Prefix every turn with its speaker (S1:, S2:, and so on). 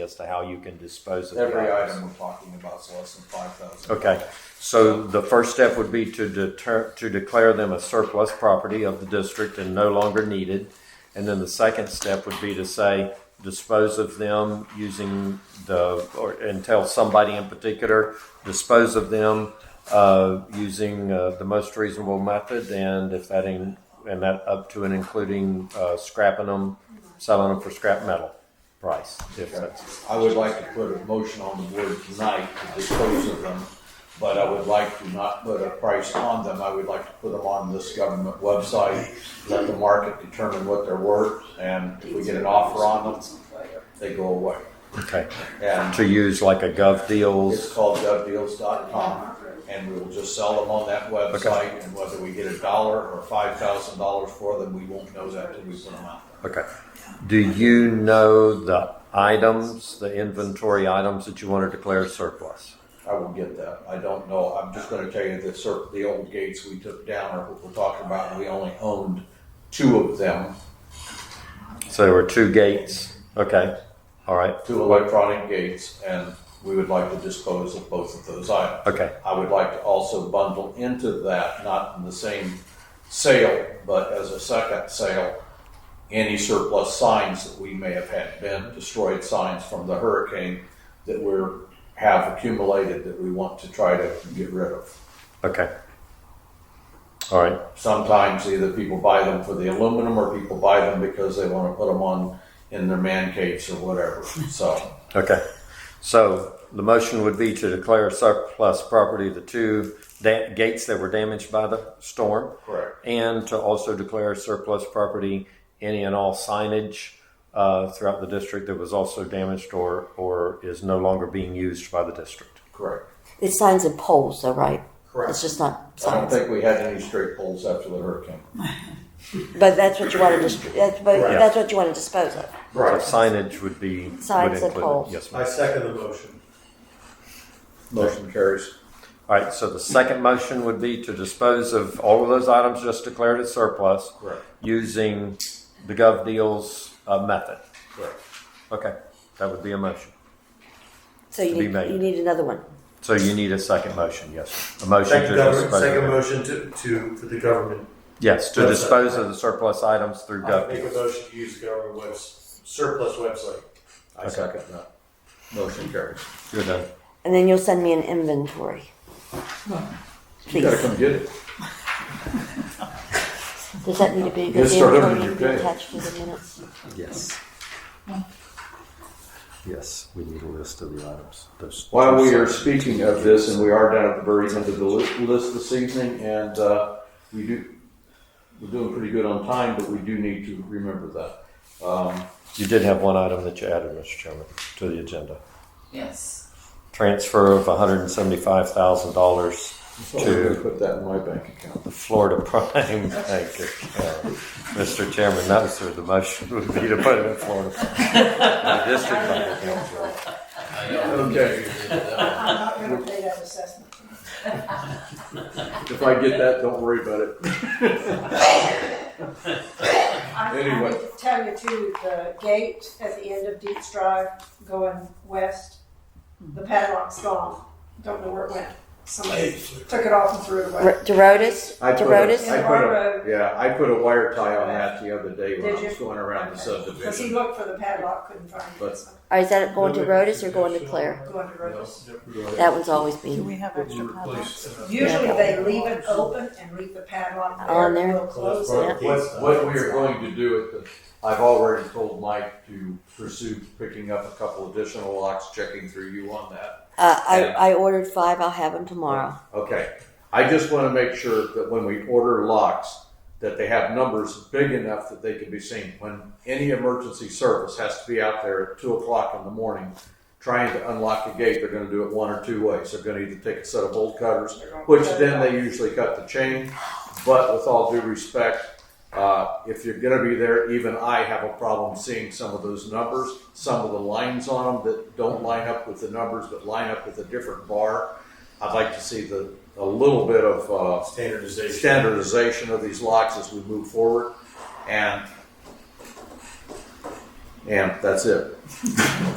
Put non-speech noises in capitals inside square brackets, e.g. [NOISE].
S1: as to how you can dispose of
S2: Every
S1: the
S2: item
S1: items.
S2: we're talking about is less than five thousand.
S1: Okay, so the first step would be to deter, to declare them a surplus property of the district and no longer needed. And then the second step would be to say, dispose of them using the, or, and tell somebody in particular, dispose of them, uh, using, uh, the most reasonable method, and if that in, and that up to and including, uh, scrapping them, selling them for scrap metal price, if that's.
S2: I would like to put a motion on the board tonight to dispose of them, but I would like to not put a price on them. I would like to put them on this government website, let the market determine what they're worth, and if we get an offer on them, they go away.
S1: Okay,
S2: And
S1: to use like a gov
S2: it's
S1: deals.
S2: called govdeals.com, and we will just sell them on that website, and whether we get a dollar or five thousand dollars for them, we won't know that till we put them out.
S1: Okay. Do you know the items, the inventory items that you want to declare surplus?
S2: I will get that. I don't know. I'm just gonna tell you that cer- the old gates we took down are what we're talking about. We only owned two of them,
S1: So there were two gates. Okay, all right,
S2: two electronic gates, and we would like to dispose of both of those items.
S1: okay,
S2: I would like to also bundle into that, not in the same sale, but as a second sale, any surplus signs that we may have had been destroyed signs from the hurricane that we're, have accumulated that we want to try to get rid of.
S1: okay. All right,
S2: sometimes either people buy them for the aluminum or people buy them because they want to put them on in their man caves or [LAUGHS] whatever. So
S1: okay. So the motion would be to declare surplus property, the two da- gates that were damaged by the storm.
S2: correct.
S1: And to also declare surplus property, any and all signage uh, throughout the district that was also damaged or, or is no longer being used by the district.
S2: Correct.
S3: It's signs and poles, though, right?
S2: Correct.
S3: It's just not
S2: I don't
S3: signs.
S2: think we had any straight poles after the hurricane.
S3: But that's what you want to dis- that's, but
S4: Right.
S3: that's what you want to dispose of.
S1: So Signage would be. would
S3: Signs and
S1: include it.
S3: poles.
S1: Yes, ma'am.
S4: I second the motion.
S2: Motion carries.
S1: All right, so the second motion would be to dispose of all of those items just declared as surplus.
S2: Correct.
S1: Using the gov deals uh, method.
S2: Correct.
S1: Okay, that would be a motion.
S3: So you
S1: To be
S3: need,
S1: made.
S3: you need another one.
S1: So you need a second motion, yes. sir. A motion
S4: Second
S1: to
S4: government,
S1: dispose. of
S4: second
S1: it.
S4: motion to, to, for the government.
S1: Yes, to
S4: Yes, sir.
S1: dispose of the surplus items through
S4: I
S1: gov
S4: make a
S1: deals.
S4: motion to use the government webs, surplus website.
S2: I second that. Motion carries.
S1: You're done.
S3: And then you'll send me an inventory.
S2: You gotta
S3: Please.
S2: come get it.
S3: Does that need to be
S2: You
S3: does the
S2: start over
S3: inventory need to
S2: your
S3: be
S2: day.
S3: attached to the minutes?
S1: Yes. Yes, we need a list of the items. Those-
S2: While we are speaking of this, and we are down at the very end of the li- list this evening, and uh, we do, we're doing pretty good on time, but we do need to remember that. Um,
S1: You did have one item that you added, Mr. Chairman, to the agenda.
S5: Yes.
S1: Transfer of $175,000
S2: So I'm gonna
S1: to
S2: put that in my bank account.
S1: the Florida [LAUGHS] Prime Bank account. Mr. Chairman, no, sir, the motion [LAUGHS] would be to put it in Florida. Prime. The district bank account, sorry.
S2: Okay,
S6: I'm not gonna pay that assessment.
S2: if I get that, don't worry about it.
S6: I, I
S2: Anyway.
S6: need to tell you too, the gate at the end of Deep Drive going west, the padlock's gone. Don't know where it went. Somebody took it off and threw it away.
S3: R- DeRotis?
S2: I put a,
S3: DeRotis?
S2: I put a, yeah, I put a wire tie on that the other day when
S6: Did
S2: I
S6: you?
S2: was going around the
S6: Cause he
S2: subdivision.
S6: looked for the padlock, couldn't find it,
S2: But-
S6: so
S3: Or is that going to Rotis or going to Claire?
S6: going to Rhoda's.
S3: That one's always me.
S5: we have extra padlocks?
S6: Usually they leave it open and leave the padlock there.
S3: On there.
S6: We'll close
S4: So
S6: it.
S4: that's
S2: What,
S4: part
S2: what we are going to do at the, I've already told Mike to pursue picking up a couple additional locks, checking through you on that.
S3: Uh, I, I ordered five. I'll have them tomorrow.
S2: Okay, I just wanna make sure that when we order locks, that they have numbers big enough that they can be seen. When any emergency service has to be out there at two o'clock in the morning trying to unlock the gate, they're gonna do it one or two ways. They're gonna either take a set of bolt cutters, which then they usually cut the chain. But with all due respect, uh, if you're gonna be there, even I have a problem seeing some of those numbers, some of the lines on them that don't line up with the numbers, but line up with a different bar. I'd like to see the, a little bit of, uh,
S4: Standardization.
S2: standardization of these locks as we move forward, and and that's it.